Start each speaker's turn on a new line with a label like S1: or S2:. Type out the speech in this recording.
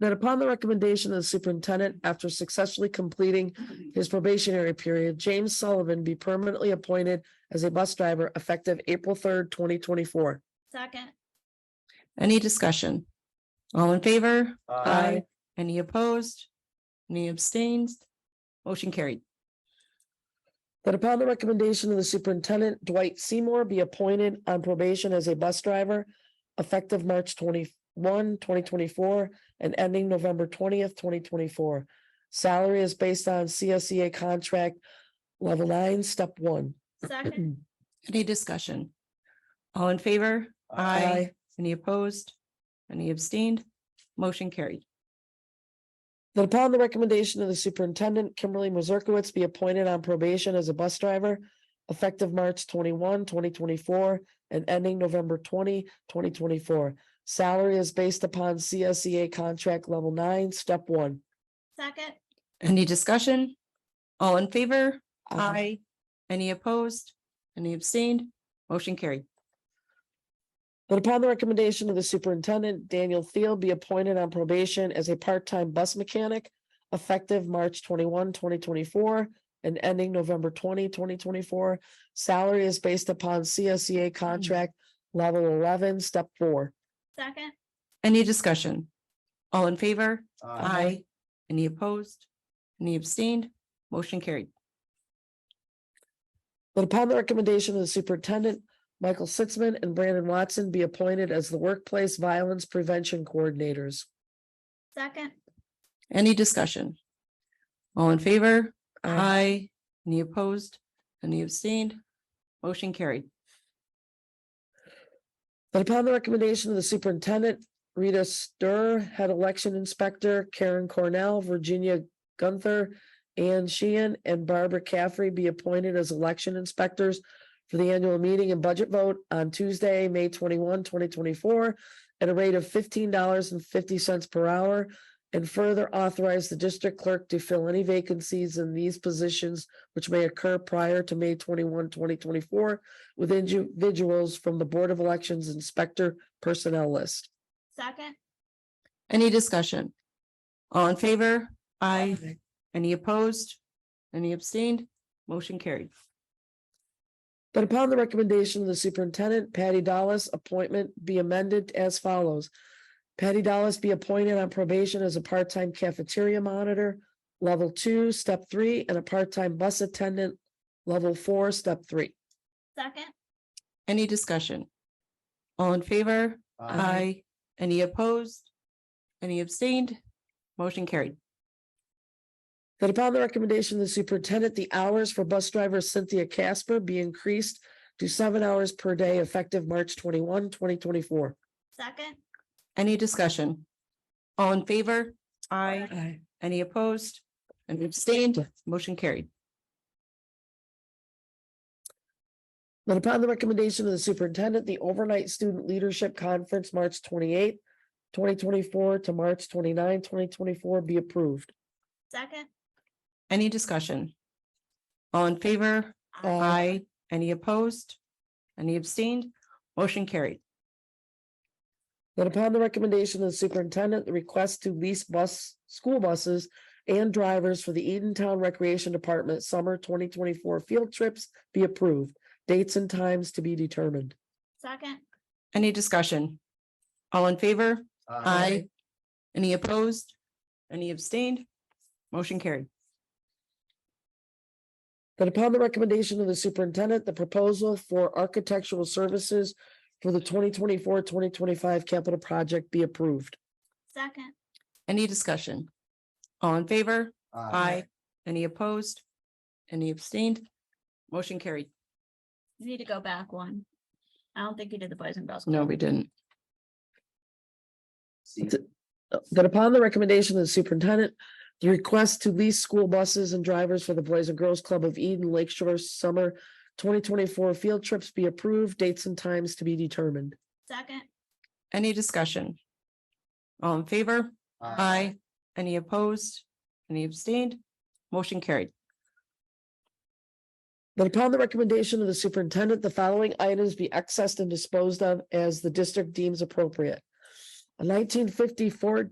S1: That upon the recommendation of the superintendent, after successfully completing his probationary period, James Sullivan be permanently appointed as a bus driver effective April third, twenty twenty-four.
S2: second,
S3: Any discussion? All in favor?
S1: Aye.
S3: Any opposed? Any abstained? Motion carried.
S1: That upon the recommendation of the superintendent, Dwight Seymour be appointed on probation as a bus driver effective March 21, 2024, and ending November twentieth, twenty twenty-four. Salary is based on CSEA contract level nine, step one.
S2: second,
S3: Any discussion? All in favor?
S1: Aye.
S3: Any opposed? Any abstained? Motion carried.
S1: That upon the recommendation of the superintendent, Kimberly Mazurkowitz be appointed on probation as a bus driver effective March 21, 2024, and ending November 20, 2024. Salary is based upon CSEA contract level nine, step one.
S2: second,
S3: Any discussion? All in favor? Any opposed? Any abstained? Motion carried.
S1: That upon the recommendation of the superintendent, Daniel Thiel be appointed on probation as a part-time bus mechanic effective March 21, 2024, and ending November 20, 2024. Salary is based upon CSEA contract level eleven, step four.
S2: second,
S3: Any discussion? All in favor? Any opposed? Any abstained? Motion carried.
S1: That upon the recommendation of the superintendent, Michael Sitzman and Brandon Watson be appointed as the workplace violence prevention coordinators.
S2: second,
S3: Any discussion? All in favor?
S1: Aye.
S3: Aye. Any opposed? Any abstained? Motion carried.
S1: That upon the recommendation of the superintendent, Rita Stir, head election inspector, Karen Cornell, Virginia Gunther, Ann Sheehan, and Barbara Caffrey be appointed as election inspectors for the annual meeting and budget vote on Tuesday, May 21, 2024, at a rate of fifteen dollars and fifty cents per hour, and further authorize the district clerk to fill any vacancies in these positions which may occur prior to May 21, 2024 with individuals from the Board of Elections Inspector Personnel List.
S2: second,
S3: Any discussion? All in favor? Aye. Any opposed? Any abstained? Motion carried.
S1: That upon the recommendation of the superintendent, Patty Dallas' appointment be amended as follows. Patty Dallas be appointed on probation as a part-time cafeteria monitor, level two, step three, and a part-time bus attendant, level four, step three.
S2: second,
S3: Any discussion? All in favor? Aye. Any opposed? Any abstained? Motion carried.
S1: That upon the recommendation of the superintendent, the hours for bus driver Cynthia Casper be increased to seven hours per day effective March 21, 2024.
S2: second,
S3: Any discussion? All in favor?
S2: Aye.
S3: Any opposed? Any abstained? Motion carried.
S1: That upon the recommendation of the superintendent, the overnight student leadership conference, March twenty-eighth, twenty twenty-four to March 29, 2024, be approved.
S2: second.
S3: Any discussion? All in favor? Aye. Any opposed? Any abstained? Motion carried.
S1: That upon the recommendation of the superintendent, the request to lease bus, school buses and drivers for the Edentown Recreation Department Summer twenty twenty-four field trips be approved. Dates and times to be determined.
S2: Second,
S3: Any discussion? All in favor? Aye. Any opposed? Any abstained? Motion carried.
S1: That upon the recommendation of the superintendent, the proposal for architectural services for the 2024-2025 capital project be approved.
S2: second,
S3: Any discussion? All in favor? Aye. Any opposed? Any abstained? Motion carried.
S2: you need to go back one. I don't think you did the boys and girls.
S3: No, we didn't.
S1: That upon the recommendation of the superintendent, the request to lease school buses and drivers for the Boys and Girls Club of Eden Lake Shore Summer twenty twenty-four field trips be approved, dates and times to be determined.
S2: Second,
S3: Any discussion? All in favor? Aye. Any opposed? Any abstained? Motion carried.
S1: That upon the recommendation of the superintendent, the following items be accessed and disposed of as the district deems appropriate. A nineteen fifty Ford